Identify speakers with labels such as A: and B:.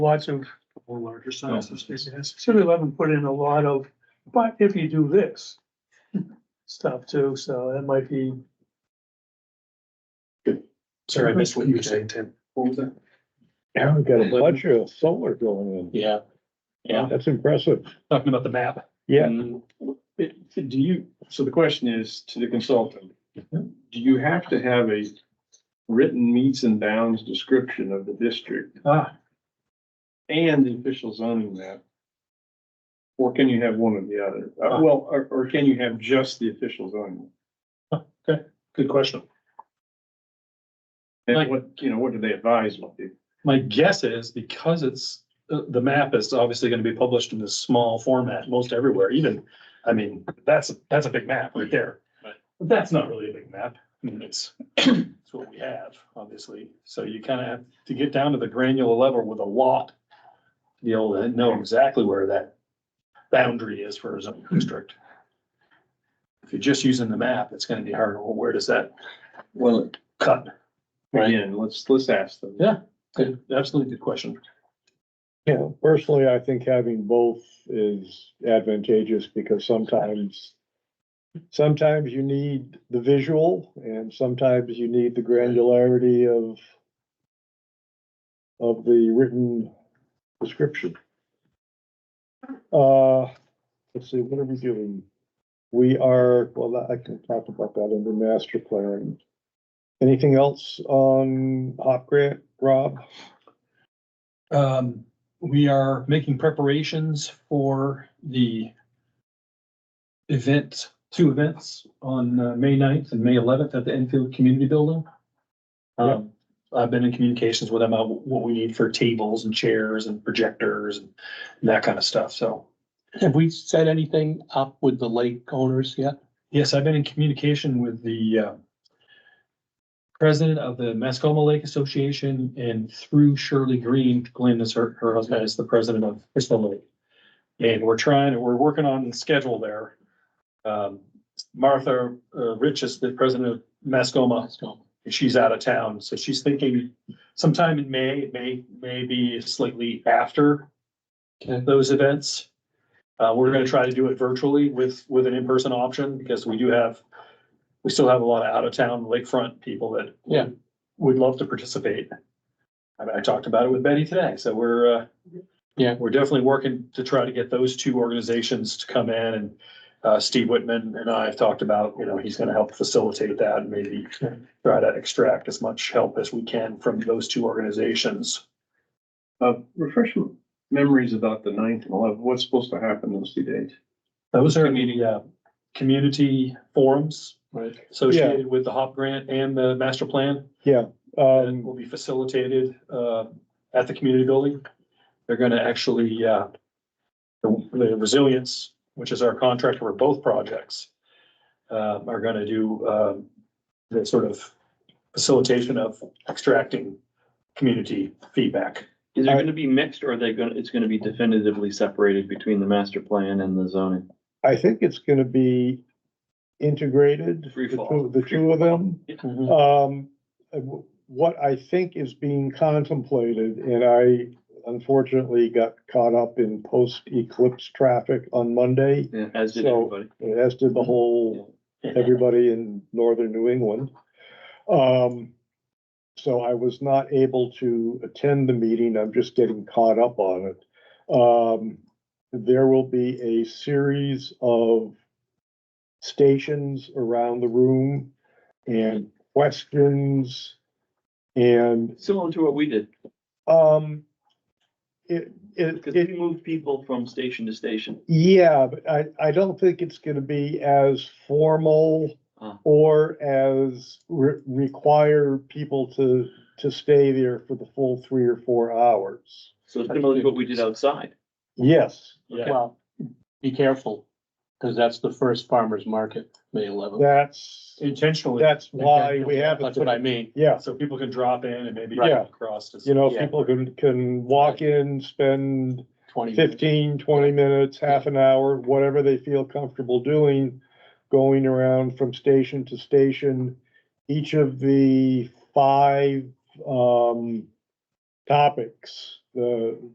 A: lots of,
B: Or larger sizes.
A: City Eleven put in a lot of, but if you do this stuff too, so that might be,
B: Sorry, I missed what you were saying, Tim. What was that?
C: Yeah, we got a bunch of solar going in.
B: Yeah, yeah,
C: That's impressive.
B: talking about the map.
C: Yeah.
D: It- Do you, so the question is to the consultant,
B: Mm-hmm.
D: do you have to have a written meets and bounds description of the district
B: Ah,
D: and the official zoning map? Or can you have one or the other? Uh, Well, or, or can you have just the official zoning?
B: good question.
D: map?
B: Like-
D: And what, you know, what do they advise? what they-
B: My guess is because it's, the, the map is obviously gonna be published in this small format most everywhere, even, I mean, that's, that's a big map right there.
D: Right.
B: But that's not really a big map. I mean, it's, it's what we have, obviously. So you kind of have to get down to the granular level with a lot. to Be able to know exactly where that boundary is for a zoning district. If you're just using the map, it's gonna be hard. Well, where does that
D: Well,
B: cut? Right.
D: again, let's, let's ask them.
B: Yeah. Good, absolutely good question.
C: Yeah, personally, I think having both is advantageous because sometimes sometimes you need the visual and sometimes you need the granularity of of the written description. Uh, let's see, what are we doing? We are, well, I can talk about that under master plan. Anything else on Hop Grant, Rob?
B: Um, we are making preparations for the event, two events on uh, May 9th and May eleventh at the Enfield Community Building. Um, I've been in communications with them, about what we need for tables and chairs and projectors and that kind of stuff, so.
E: Have we set anything up with the lake owners yet?
B: Yes, I've been in communication with the uh, president of the Mascoma Lake Association and through Shirley Green, Glenn is her, her husband is the president of Crystal Lake. And we're trying, we're working on the schedule there. Um, Martha uh, Rich is the president of Mascoma.
E: Let's go.
B: and She's out of town, so she's thinking sometime in May, it may, maybe slightly after
E: Okay.
B: those events. Uh, we're gonna try to do it virtually with, with an in-person option because we do have, we still have a lot of out-of-town lakefront people that.
E: Yeah.
B: Would love to participate. I, I talked about it with Betty today, so we're, uh.
E: Yeah.
B: We're definitely working to try to get those two organizations to come in and, uh, Steve Whitman and I have talked about, you know, he's gonna help facilitate that and maybe. Try to extract as much help as we can from those two organizations.
D: Uh, refresh my memories about the ninth and eleventh, what's supposed to happen those two days?
B: Those are the, uh, community forums
E: Right.
B: associated with the HOP grant and the master plan that
C: Um,
B: will be facilitated uh, at the community building. They're going to actually, uh, the the resilience, which is our contractor for both projects, uh, are going to do um, the sort of facilitation of extracting community feedback.
F: Is it
C: I-
F: gonna be mixed or are they gonna, it's gonna be definitively separated between the master plan and the zoning?
C: I think it's gonna be integrated, the
F: Free fall.
C: two, the two of them.
E: Mhm.
C: Um, uh, wh- what I think is being contemplated, and I unfortunately got caught up in post-eclipse traffic on Monday,
F: As did
C: So-
F: everybody.
C: as did the whole everybody in northern New England. Um, so I was not able to attend the meeting. I'm just getting caught up on it. Um, there will be a series of stations around the room and questions and,
F: Similar to what we did,
C: um, it, it,
F: because
C: it
F: we moved people from station to station.
C: yeah, but I, I don't think it's gonna be as formal
F: Ah.
C: or as re- require people to, to stay there for the full three or four hours.
F: So similar to what we did outside.
C: Yes,
B: Yeah,
E: Well, be careful, because that's the first farmer's market, May eleventh.
C: that's,
B: intentionally,
C: that's why we have it.
E: That's what I mean.
C: Yeah,
B: so people can drop in and maybe
C: Yeah.
B: across. as-
C: you know,
E: Yeah.
C: people can, can walk in, spend
E: Twenty. minutes.
C: 15, 20 minutes, half an hour, whatever they feel comfortable doing, going around from station to station. Each of the five um, topics, the